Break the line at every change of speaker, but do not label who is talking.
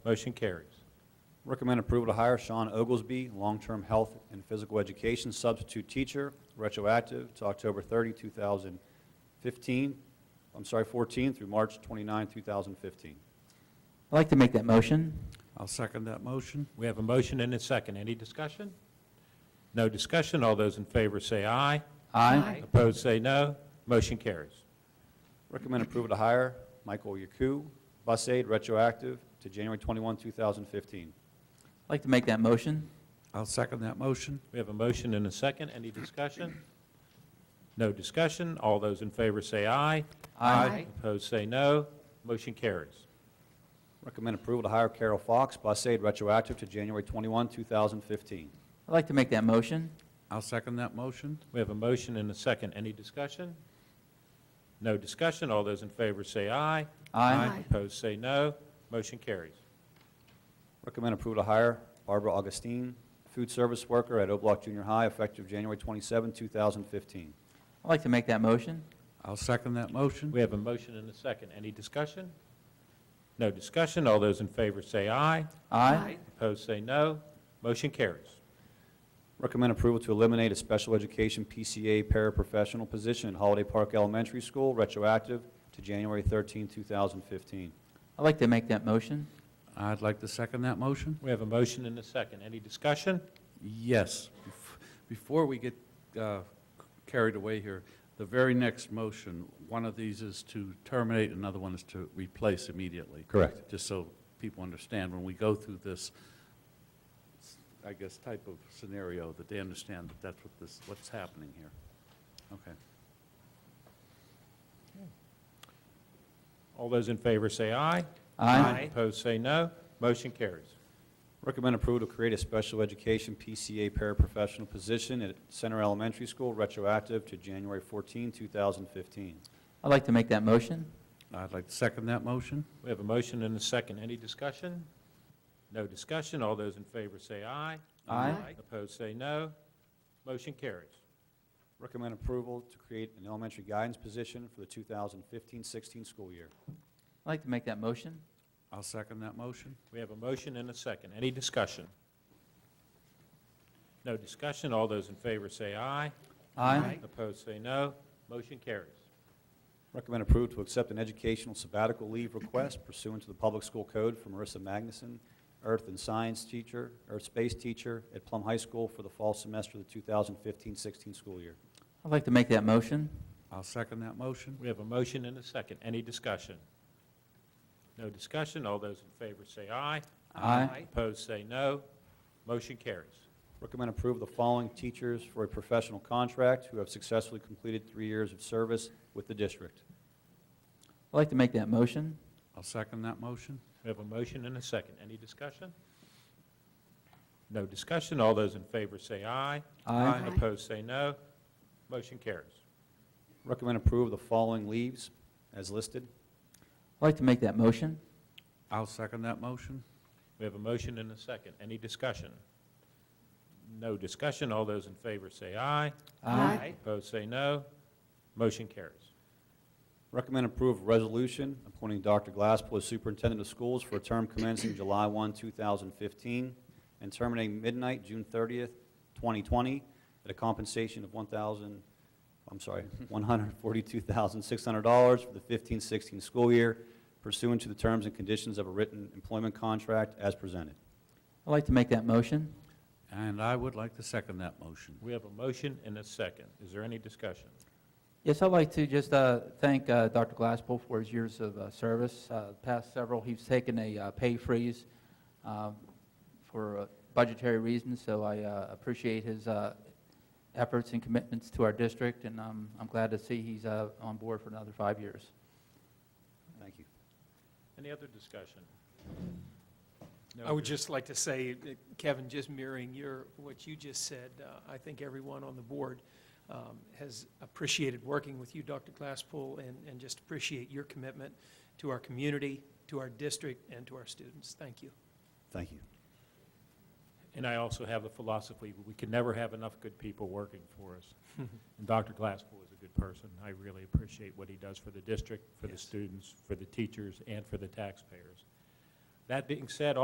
Motion carries.
Recommend approval to hire Sean Oglesby, long-term health and physical education substitute teacher, retroactive to October 30, 2015, I'm sorry, 14 through March 29, 2015.
I'd like to make that motion.
I'll second that motion.
We have a motion and a second. Any discussion? No discussion. All those in favor say aye.
Aye.
Opposed, say no. Motion carries.
Recommend approval to hire Michael Yaku, bus aide, retroactive to January 21, 2015.
I'd like to make that motion.
I'll second that motion.
We have a motion and a second. Any discussion? No discussion. All those in favor say aye.
Aye.
Opposed, say no. Motion carries.
Recommend approval to hire Carol Fox, bus aide, retroactive to January 21, 2015.
I'd like to make that motion.
I'll second that motion.
We have a motion and a second. Any discussion? No discussion. All those in favor say aye.
Aye.
Opposed, say no. Motion carries.
Recommend approval to hire Barbara Augustine, food service worker at O'Block Junior High, effective January 27, 2015.
I'd like to make that motion.
I'll second that motion.
We have a motion and a second. Any discussion? No discussion. All those in favor say aye.
Aye.
Opposed, say no. Motion carries.
Recommend approval to eliminate a special education PCA paraprofessional position at Holiday Park Elementary School, retroactive to January 13, 2015.
I'd like to make that motion.
I'd like to second that motion.
We have a motion and a second. Any discussion?
Yes. Bef- Before we get uh, carried away here, the very next motion, one of these is to terminate, another one is to replace immediately.
Correct.
Just so people understand, when we go through this, I guess, type of scenario, that they understand that that's what this, what's happening here. Okay.
All those in favor say aye.
Aye.
Opposed, say no. Motion carries.
Recommend approval to create a special education PCA paraprofessional position at Center Elementary School, retroactive to January 14, 2015.
I'd like to make that motion.
I'd like to second that motion.
We have a motion and a second. Any discussion? No discussion. All those in favor say aye.
Aye.
Opposed, say no. Motion carries.
Recommend approval to create an elementary guidance position for the 2015-16 school year.
I'd like to make that motion.
I'll second that motion.
We have a motion and a second. Any discussion? No discussion. All those in favor say aye.
Aye.
Opposed, say no. Motion carries.
Recommend approval to accept an educational sabbatical leave request pursuant to the Public School Code for Marissa Magnuson, Earth and Science teacher, Earth Space teacher at Plum High School for the fall semester of the 2015-16 school year.
I'd like to make that motion.
I'll second that motion.
We have a motion and a second. Any discussion? No discussion. All those in favor say aye.
Aye.
Opposed, say no. Motion carries.
Recommend approval of the following teachers for a professional contract who have successfully completed three years of service with the district.
I'd like to make that motion.
I'll second that motion.
We have a motion and a second. Any discussion? No discussion. All those in favor say aye.
Aye.
Opposed, say no. Motion carries.
Recommend approval of the following leaves as listed.
I'd like to make that motion.
I'll second that motion.
We have a motion and a second. Any discussion? No discussion. All those in favor say aye. Opposed, say no. Motion carries.
Recommend approval of resolution appointing Dr. Glasspool as superintendent of schools for a term commencing July 1, 2015, and terminating midnight June 30th, 2020, at a compensation of 1,000, I'm sorry, $142,600 for the 15-16 school year pursuant to the terms and conditions of a written employment contract as presented.
I'd like to make that motion.
And I would like to second that motion.
We have a motion and a second. Is there any discussion?
Yes, I'd like to just uh, thank uh, Dr. Glasspool for his years of uh, service. Uh, the Past several, he's taken a uh, pay freeze um, for uh, budgetary reasons, so I uh, appreciate his uh, efforts and commitments to our district, and I'm I'm glad to see he's uh, on board for another five years.
Thank you.
Any other discussion? No
I would
dis-
just like to say, uh, Kevin, just mirroring your, what you just said, uh, I think everyone on the board um, has appreciated working with you, Dr. Glasspool, and, and just appreciate your commitment to our community, to our district, and to our students. Thank you.
Thank you.
And I also have the philosophy, we can never have enough good people working for us. And Dr. Glasspool is a good person. I really appreciate what he does for the district, for the
Yes.
students, for the teachers, and for the taxpayers. That being said,